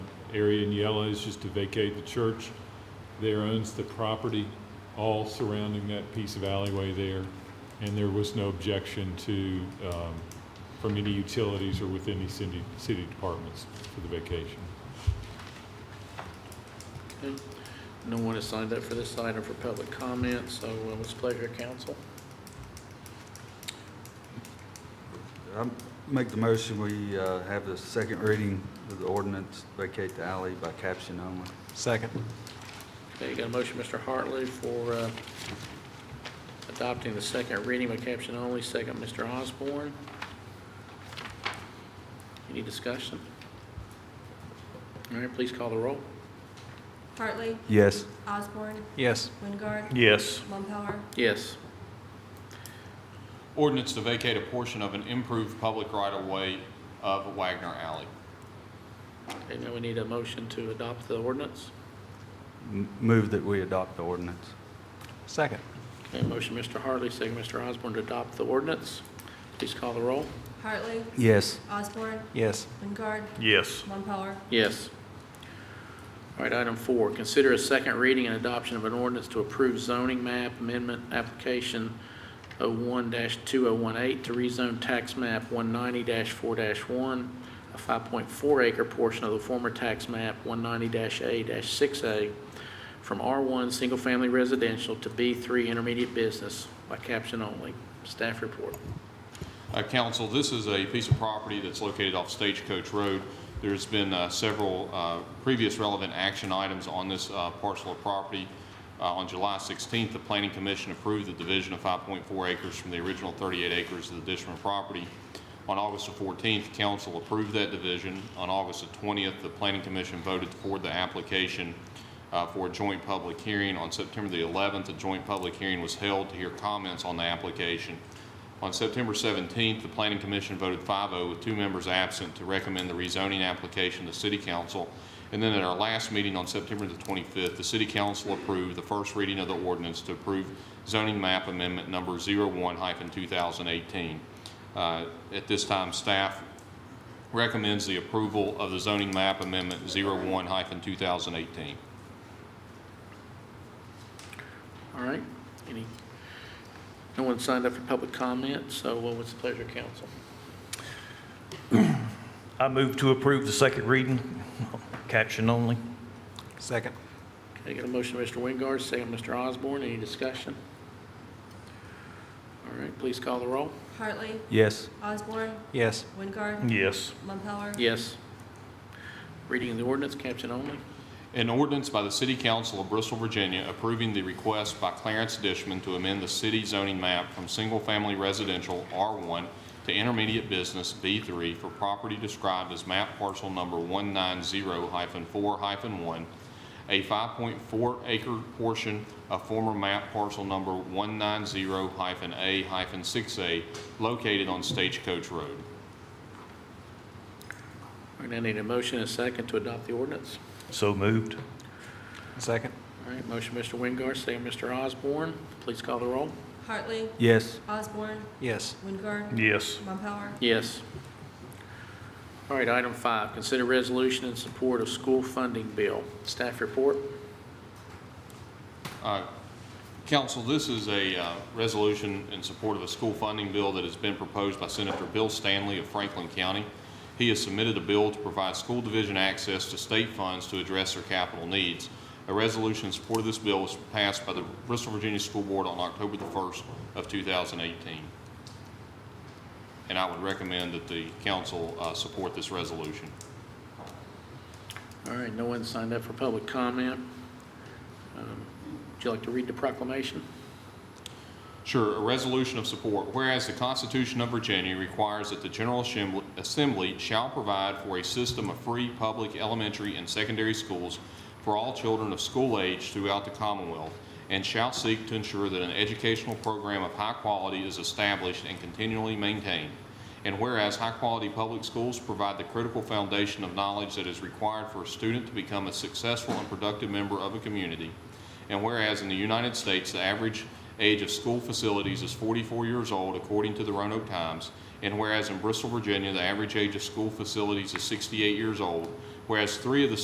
area in yellow is just to vacate the church. There owns the property, all surrounding that piece of alleyway there, and there was no objection to, um, from any utilities or with any city, city departments for the vacation. Okay. No one has signed up for this item for public comment, so uh, it's pleasure, council. I make the motion, we uh, have the second reading of the ordinance, vacate the alley by caption only. Second. Okay, you got a motion, Mr. Hartley, for uh, adopting the second reading by caption only, second, Mr. Osborne. Any discussion? All right, please call the roll. Hartley, Yes. Osborne, Yes. Wingard, Yes. Mumpower, Yes. Ordinance to vacate a portion of an improved public right-of-way of Wagner Alley. Okay, now we need a motion to adopt the ordinance. M- Move that we adopt the ordinance. Second. Okay, motion, Mr. Hartley, second, Mr. Osborne, to adopt the ordinance. Please call the roll. Hartley, Yes. Osborne, Yes. Wingard, Yes. Mumpower, Yes. All right, item four, consider a second reading and adoption of an ordinance to approve zoning map amendment application 01-2018 to rezone tax map 190-4-1, a 5.4 acre portion of the former tax map 190-A-6A from R1 Single Family Residential to B3 Intermediate Business by caption only. Staff report. Uh, Council, this is a piece of property that's located off Stagecoach Road. There's been uh, several uh, previous relevant action items on this uh, parcel of property. Uh, On July 16th, the Planning Commission approved the division of 5.4 acres from the original 38 acres of the Dishman property. On August the 14th, council approved that division. On August the 20th, the Planning Commission voted for the application uh, for a joint public hearing. On September the 11th, a joint public hearing was held to hear comments on the application. On September 17th, the Planning Commission voted 5-0 with two members absent to recommend the rezoning application to City Council. And then at our last meeting on September the 25th, the City Council approved the first reading of the ordinance to approve zoning map amendment number 01-2018. Uh, At this time, staff recommends the approval of the zoning map amendment 01-2018. All right, any, no one signed up for public comment, so uh, what's the pleasure, council? I move to approve the second reading, caption only. Second. Okay, got a motion, Mr. Wingard, second, Mr. Osborne, any discussion? All right, please call the roll. Hartley, Yes. Osborne, Yes. Wingard, Yes. Mumpower, Yes. Reading of the ordinance, caption only. An ordinance by the City Council of Bristol, Virginia, approving the request by Clarence Dishman to amend the city zoning map from single-family residential R1 to intermediate business B3 for property described as map parcel number 190-4-1, a 5.4 acre portion of former map parcel number 190-A-6A located on Stagecoach Road. All right, I need a motion and a second to adopt the ordinance. So moved. Second. All right, motion, Mr. Wingard, second, Mr. Osborne, please call the roll. Hartley, Yes. Osborne, Yes. Wingard, Yes. Mumpower, Yes. All right, item five, consider resolution in support of school funding bill. Staff report. Uh, Council, this is a uh, resolution in support of a school funding bill that has been proposed by Senator Bill Stanley of Franklin County. He has submitted a bill to provide school division access to state funds to address their capital needs. A resolution in support of this bill was passed by the Bristol Virginia School Board on October the 1st of 2018. And I would recommend that the council uh, support this resolution. All right, no one signed up for public comment. Um, Would you like to read the proclamation? Sure, a resolution of support. Whereas the Constitution of Virginia requires that the General Assembl- Assembly shall provide for a system of free public elementary and secondary schools for all children of school age throughout the Commonwealth, and shall seek to ensure that an educational program of high quality is established and continually maintained. And whereas high-quality public schools provide the critical foundation of knowledge that is required for a student to become a successful and productive member of a community, and whereas in the United States, the average age of school facilities is 44 years old, according to the Roanoke Times, and whereas in Bristol, Virginia, the average age of school facilities is 68 years old, whereas three of the